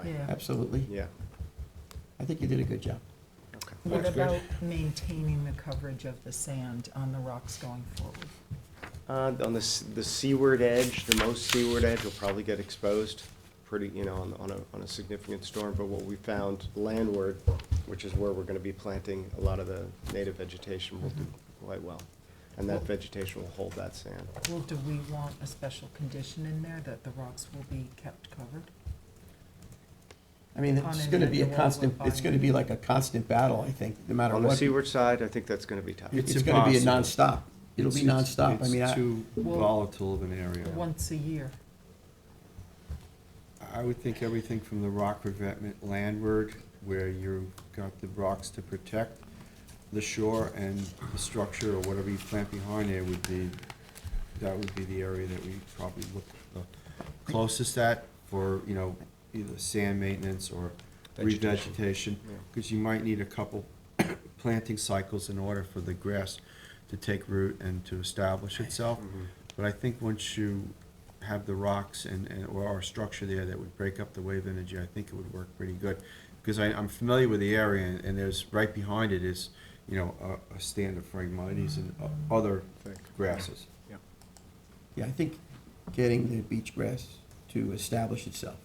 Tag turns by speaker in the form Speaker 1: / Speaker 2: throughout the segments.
Speaker 1: July.
Speaker 2: Yeah.
Speaker 3: Absolutely.
Speaker 1: Yeah.
Speaker 3: I think you did a good job.
Speaker 1: Okay.
Speaker 2: What
Speaker 1: That's good.
Speaker 2: about maintaining the coverage of the sand on the rocks going forward?
Speaker 1: Uh, on the, s- the seaward edge, the most seaward edge will probably get exposed pretty, you know, on, on a, on a significant storm. But what we found landward, which is where we're gonna be planting a lot of the native vegetation, will do quite well. And that vegetation will hold that sand.
Speaker 2: Well, do we want a special condition in there that the rocks will be kept covered?
Speaker 3: I mean,
Speaker 2: On
Speaker 3: it's
Speaker 2: an
Speaker 3: gonna be a
Speaker 2: annual
Speaker 3: constant, it's
Speaker 2: refinement.
Speaker 3: gonna be like a constant battle, I think, no matter
Speaker 1: On the
Speaker 3: what.
Speaker 1: seaward side, I think that's gonna be tough.
Speaker 3: It's
Speaker 4: It's
Speaker 3: gonna be a
Speaker 4: impossible.
Speaker 3: nonstop. It'll be nonstop. I mean,
Speaker 4: It's
Speaker 3: I,
Speaker 4: too
Speaker 2: Well-
Speaker 4: volatile of an area.
Speaker 2: Once a year?
Speaker 4: I would think everything from the rock revetment landward, where you've got the rocks to protect the shore and the structure or whatever you plant behind there would be, that would be the area that we probably look the closest at for, you know, either sand maintenance or
Speaker 1: Vegetation.
Speaker 4: revegetation.
Speaker 1: Yeah.
Speaker 4: Because you might need a couple planting cycles in order for the grass to take root and to establish itself.
Speaker 1: Mhm.
Speaker 4: But I think once you have the rocks and, and, or a structure there that would break up the wave energy, I think it would work pretty good. Because I, I'm familiar with the area, and and there's, right behind it is, you know, a, a stand of phragmites and o- other
Speaker 1: Thick.
Speaker 4: grasses.
Speaker 1: Yeah.
Speaker 3: yeah, I think getting the beach grass to establish itself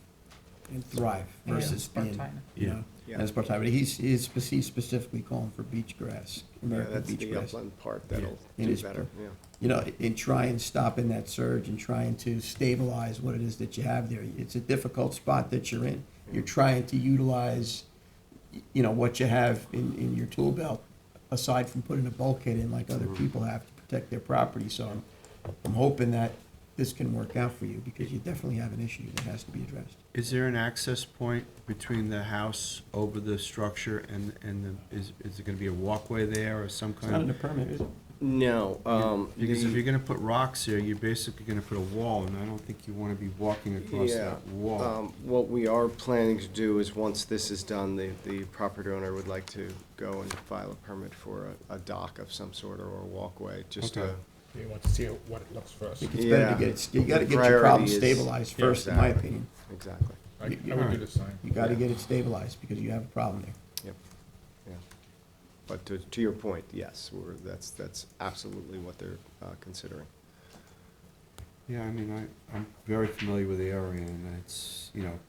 Speaker 3: and thrive
Speaker 2: Yeah,
Speaker 3: versus being,
Speaker 2: Spartina.
Speaker 3: you
Speaker 4: Yeah.
Speaker 3: know,
Speaker 1: Yeah.
Speaker 3: as part time. But he's, he's spec- he's specifically calling for beach grass,
Speaker 1: Yeah,
Speaker 3: American
Speaker 1: that's
Speaker 3: beach
Speaker 1: the
Speaker 3: grass.
Speaker 1: upland part that'll
Speaker 3: It
Speaker 1: do
Speaker 3: is
Speaker 1: better, yeah.
Speaker 3: You know, and try and stop in that surge and trying to stabilize what it is that you have there. It's a difficult spot that you're in. You're trying to utilize, y- you know, what you have in, in your tool belt, aside from putting a bulkhead in like other people have to protect their property. So I'm, I'm hoping that this can work out for you, because you definitely have an issue that has to be addressed.
Speaker 4: Is there an access point between the house over the structure and, and the, is, is it gonna be a walkway there or some
Speaker 3: It's not in
Speaker 4: kind
Speaker 3: the
Speaker 4: of?
Speaker 3: permit, is it?
Speaker 1: No, um.
Speaker 4: Because if
Speaker 1: the-
Speaker 4: you're gonna put rocks there, you're basically gonna put a wall, and I don't think you wanna be walking across
Speaker 1: Yeah.
Speaker 4: that wall.
Speaker 1: um, What we are planning to do is, once this is done, the, the property owner would like to go and file a permit for a, a dock of some sort or a walkway, just to.
Speaker 4: Okay.
Speaker 5: You want to see what it looks first.
Speaker 3: It's better
Speaker 1: Yeah.
Speaker 3: to get, it- you gotta
Speaker 1: The
Speaker 3: get your
Speaker 1: priority
Speaker 3: problem
Speaker 1: is-
Speaker 3: stabilized
Speaker 5: Yeah,
Speaker 3: first, in my
Speaker 1: exactly.
Speaker 3: opinion.
Speaker 1: Exactly,
Speaker 5: I I
Speaker 3: You- you
Speaker 5: would do
Speaker 4: aren't.
Speaker 5: the same.
Speaker 3: You gotta
Speaker 1: Yeah.
Speaker 3: get it stabilized, because you have a problem there.
Speaker 1: yep, yeah. But to, to your point, yes, we're, that's, that's absolutely what they're uh, considering.
Speaker 4: Yeah, I mean, I, I'm very familiar with the area, and it's, you know,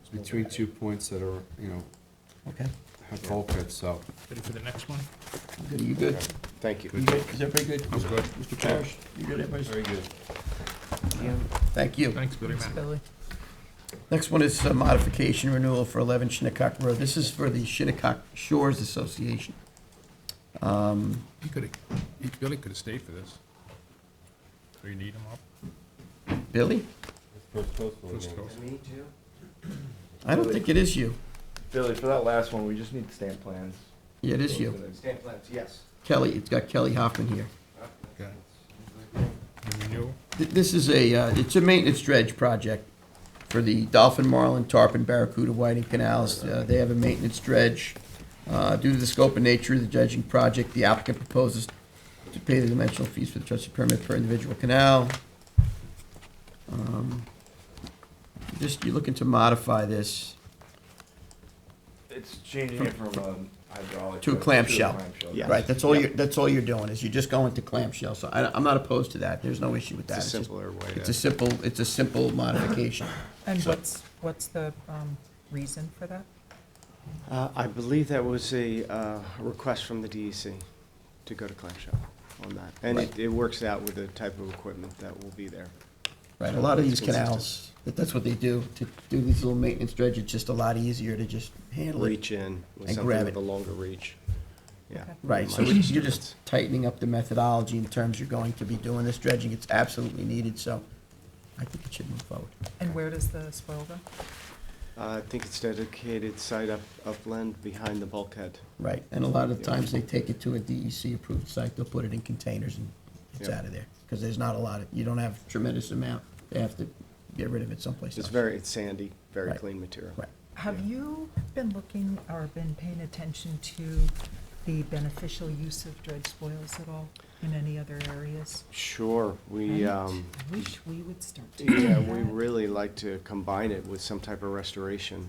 Speaker 4: it's between two points that are, you know,
Speaker 3: Okay.
Speaker 4: have bulkhead, so.
Speaker 5: Ready for the next one?
Speaker 3: Good, you good?
Speaker 1: Thank you.
Speaker 3: You good? Is everybody good?
Speaker 5: I'm good.
Speaker 3: Mr. Parrish, you good, everybody?
Speaker 4: good.
Speaker 3: Thank you.
Speaker 5: Thanks, Billy, man.
Speaker 2: Billy?
Speaker 3: Next one is a modification renewal for 11 Shinnecock Road. This is for the Shinnecock Shores Association. Um,
Speaker 5: He could have, Billy could have stayed for this. Do Oh, you need him up?
Speaker 3: Billy?
Speaker 5: First go.
Speaker 1: Me too.
Speaker 3: I don't think it is you.
Speaker 6: Billy, for that last one, we just need stamp plans.
Speaker 3: Yeah, it is you.
Speaker 1: Stamp plans, yes.
Speaker 3: Kelly, it's got Kelly Hoffman here.
Speaker 5: Okay. You knew?
Speaker 3: Th- This is a, uh, it's a maintenance dredge project for the Dolphin, Marlin, Tarpon, Barracuda, Whiting Canals. Uh, They have a maintenance dredge. Uh, Due to the scope and nature of the dredging project, the applicant proposes to pay the dimensional fees for the trusted permit per individual canal. Um, Just, you're looking to modify this.
Speaker 6: It's changing it from um, hydraulic.
Speaker 3: To a clamshell.
Speaker 6: clamshell.
Speaker 1: Yeah. Yes.
Speaker 3: Right, that's all you're, that's all you're doing, is you're just going to clamshell. So I, I'm not opposed to that. There's no issue with that.
Speaker 1: It's a
Speaker 3: just-
Speaker 1: simpler way
Speaker 3: It's
Speaker 1: to,
Speaker 3: a simple, it's a simple modification.
Speaker 2: And what's, what's the um, reason for that?
Speaker 1: Uh, I believe that was a, uh, request from the DEC to go to clamshell on that. And it,
Speaker 3: Right.
Speaker 1: it works out with the type of equipment that will be there.
Speaker 3: Right, a lot of these
Speaker 1: It's consistent.
Speaker 3: canals, that- that's what they do, to do these little maintenance dredge, it's just a lot easier to just handle it.
Speaker 1: reach in with
Speaker 3: And
Speaker 1: something
Speaker 3: grab
Speaker 1: with
Speaker 3: it.
Speaker 1: a longer reach. Yeah.
Speaker 2: Okay.
Speaker 3: Right, so
Speaker 1: Much
Speaker 3: it's- you're
Speaker 1: difference.
Speaker 3: just tightening up the methodology in terms you're going to be doing this dredging, it's absolutely needed, so I think it should move forward.
Speaker 2: And where does the spoil go?
Speaker 1: Uh, I think it's dedicated site up, upland behind the bulkhead.
Speaker 3: Right, and a lot of times they take it to a DEC-approved site, they'll put it in containers and it's
Speaker 1: Yeah.
Speaker 3: out of there, because there's not a lot of, you don't have tremendous amount, they have to get rid of it someplace
Speaker 1: It's
Speaker 3: else.
Speaker 1: very, it's sandy, very
Speaker 3: Right.
Speaker 1: clean material.
Speaker 3: Right.
Speaker 2: Have
Speaker 1: Yeah.
Speaker 2: you been looking or been paying attention to the beneficial use of dredge spoils at all in any other areas?
Speaker 1: Sure, we,
Speaker 2: Right?
Speaker 1: um,
Speaker 2: I Wish we would start to do
Speaker 1: yeah, we
Speaker 2: that.
Speaker 1: really like to combine it with some type of restoration